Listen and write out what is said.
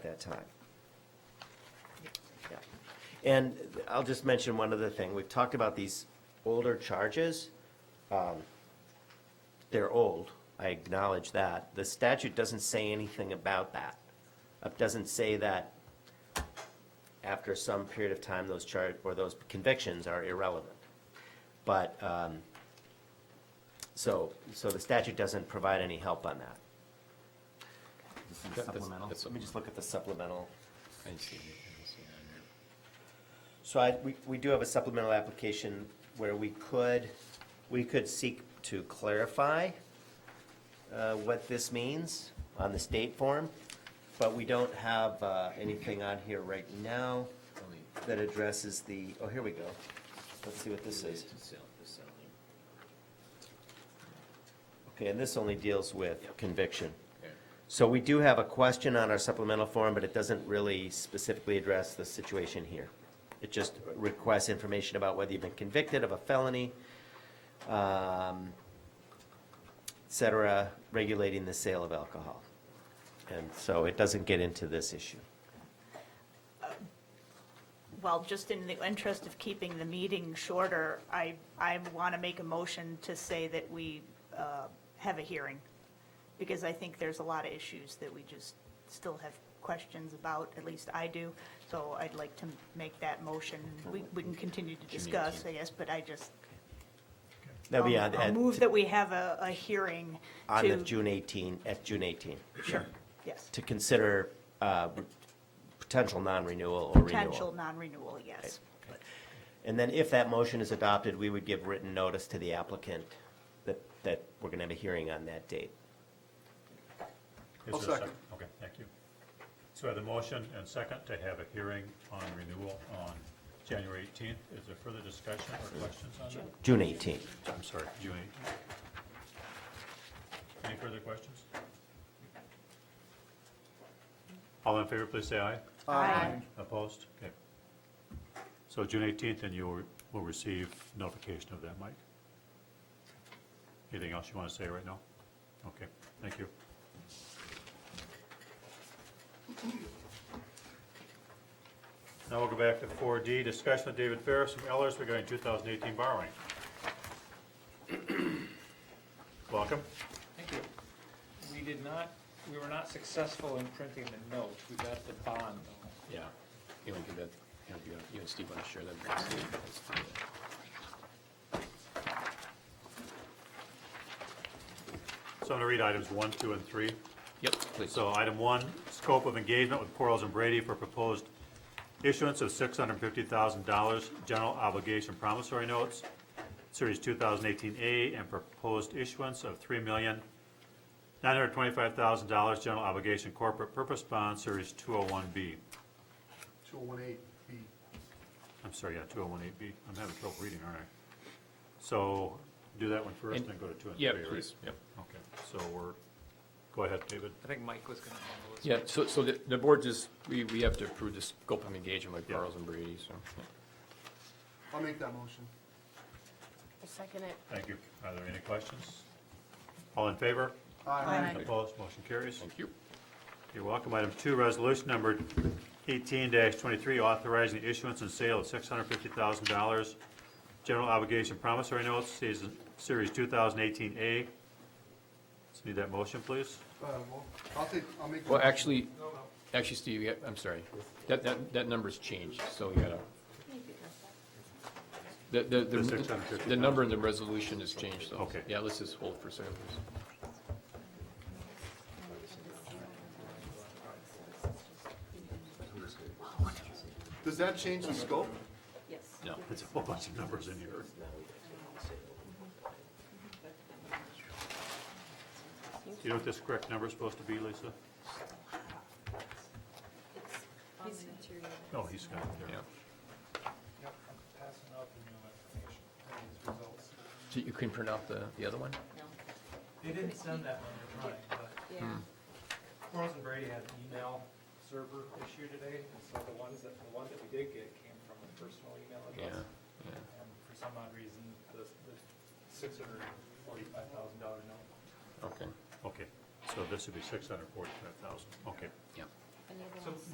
time. Yeah. And I'll just mention one other thing. We've talked about these older charges. Um, They're old, I acknowledge that. The statute doesn't say anything about that. It doesn't say that after some period of time, those charge, or those convictions are irrelevant. But, um, so, so the statute doesn't provide any help on that. That's- supplemental. that's- Let me just look at the supplemental. I see, I see on here. So I, we, we do have a supplemental application where we could, we could seek to clarify uh, what this means on the state form, but we don't have uh, anything on here right now Only- that addresses the, oh, here we go. Let's see what this is. Related to sell- to selling. Okay, and this only deals with conviction. Okay. So we do have a question on our supplemental form, but it doesn't really specifically address the situation here. It just requests information about whether you've been convicted of a felony, um, et cetera, regulating the sale of alcohol. And so it doesn't get into this issue. Well, just in the interest of keeping the meeting shorter, I, I want to make a motion to say that we uh, have a hearing, because I think there's a lot of issues that we just still have questions about, at least I do, so I'd like to make that motion. We, we can continue to discuss, I guess, but I just, That'd be I'll- on, I'll move at- that we have a, a hearing on the to, June 18, at June 18, sure, yes, to consider uh, potential non-renewal or renewal. potential non-renewal, yes. And then if that motion is adopted, we would give written notice to the applicant that, that we're going to have a hearing on that date. Is I'll there a second. Okay, thank you. So I have a motion and second to have a hearing on renewal on January 18th. Is there further discussion or questions on that? June 18th. I'm sorry, June 18th. Any further questions? All in favor, please say aye. Aye. Opposed? Okay. So June 18th, and you will- will receive notification of that, Mike. Anything else you want to say right now? Okay, thank you. Now we'll go back to 4D, discussion with David Ferris from Ellers regarding 2018 borrowing. Welcome. Thank you. We did not, we were not successful in printing the note, we got the bond though. Yeah, you want to give that, you want to give- you and Steve want to share that? Let's do that. So I'm going to read items 1, 2, and 3. Yep, please. So item one, scope of engagement with Quarles and Brady for proposed issuance of six hundred and fifty thousand dollars general obligation promissory notes, series two thousand eighteen A, and proposed issuance of three million nine hundred twenty-five thousand dollars general obligation corporate purpose bond, series two oh one B. 2018 B. I'm sorry, yeah, two oh one eight B. I'm having trouble reading, aren't I? So do that one first, And- then go to two and three, Yeah, right? please, yep. Okay, so we're, go ahead, David. I think Mike was gonna handle this. Yeah, so, so the, the board just, we, we have to approve this scope of engagement with Yeah. Carl's and Brady, so. yeah. I'll make that motion. I second it. Thank you. Are there any questions? All in favor? Aye. Opposed, motion carries. Thank you. You're welcome. Item two, resolution number eighteen twenty-three, authorizing the issuance and sale of six hundred fifty thousand dollars general obligation promissory notes, season, series two thousand eighteen A. So need that motion, please? Uh, well, I'll take, I'll make. the Well, motion. actually, No, no. actually, Steve, yeah, I'm sorry, that, that, that number's changed, so we gotta. The, the, The the, 650,000. the number in the resolution has changed, so. Okay. Yeah, let's just hold for a second. please. Does that change the scope? No. There's a whole bunch of numbers in here. You know what this correct number is supposed to be, Lisa? No, he's got it there. Yeah. Yep, I'm passing out the new information, and these results. So you can print out the, the other one? They didn't send that one to Ryan, but Quarles and Brady had an email server issue today, and so the ones that, the one that we did get came from a personal email Yeah, address. yeah. And for some odd reason, the, the six hundred and forty-five thousand dollar note Okay, Okay, so this would be six hundred forty-five thousand, okay. yeah. Another So one's-